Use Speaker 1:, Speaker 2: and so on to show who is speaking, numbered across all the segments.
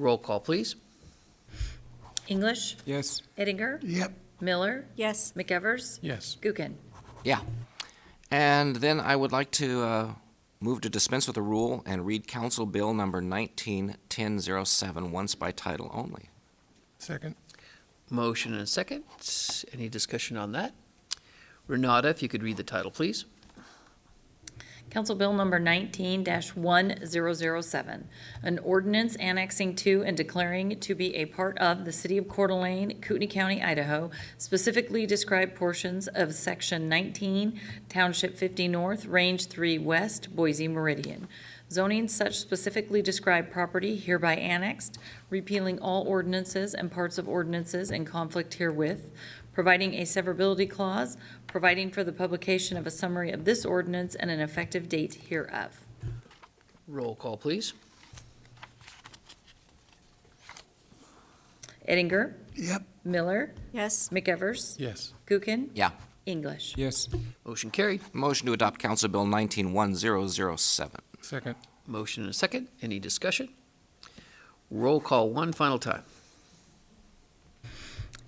Speaker 1: Roll call, please.
Speaker 2: English,
Speaker 3: Yes.
Speaker 2: Eddinger,
Speaker 4: Yep.
Speaker 2: Miller,
Speaker 5: Yes,
Speaker 2: McEvers,
Speaker 3: Yes.
Speaker 2: Gookin.
Speaker 6: Yeah. And then I would like to uh, move to dispense with the rule and read Council Bill Number 191007 once by title only.
Speaker 4: Second.
Speaker 1: Motion and a second. Any discussion on that? Renata, if you could read the title, please.
Speaker 2: Council Bill Number 19-1007, an ordinance annexing to and declaring to be a part of the City of Coeur d'Alene, Kootenai County, Idaho, specifically described portions of Section 19, Township 50 North, Range 3 West, Boise Meridian. Zoning such specifically described property hereby annexed, repealing all ordinances and parts of ordinances in conflict herewith, providing a severability clause, providing for the publication of a summary of this ordinance and an effective date hereof.
Speaker 1: Roll call, please.
Speaker 2: Eddinger,
Speaker 4: Yep.
Speaker 2: Miller,
Speaker 5: yes,
Speaker 2: McEvers,
Speaker 3: Yes.
Speaker 2: Gookin,
Speaker 6: Yeah.
Speaker 2: English.
Speaker 3: Yes.
Speaker 1: Motion carried.
Speaker 6: Motion to adopt Council Bill 191007.
Speaker 3: Second.
Speaker 1: Motion and a second. Any discussion? Roll call one final time.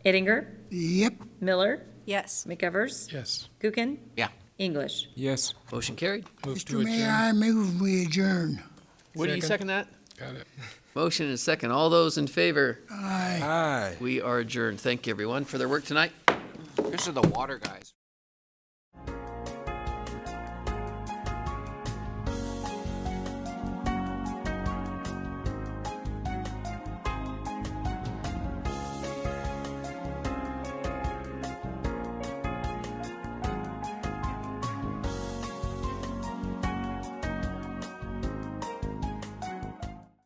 Speaker 2: Eddinger,
Speaker 4: Yep.
Speaker 2: Miller,
Speaker 5: yes.
Speaker 2: McEvers,
Speaker 3: Yes.
Speaker 2: Gookin.
Speaker 6: Yeah.
Speaker 2: English.
Speaker 3: Yes.
Speaker 1: Motion carried.
Speaker 3: Move to
Speaker 4: Mr. Mayor,
Speaker 3: adjourn.
Speaker 4: I move we adjourn.
Speaker 1: Woody, you second
Speaker 3: Second.
Speaker 1: that?
Speaker 3: Got it.
Speaker 1: Motion and a second. All those in favor,
Speaker 4: Aye.
Speaker 3: Aye.
Speaker 1: we are adjourned. Thank you, everyone, for their work tonight.
Speaker 6: Here's to the water guys.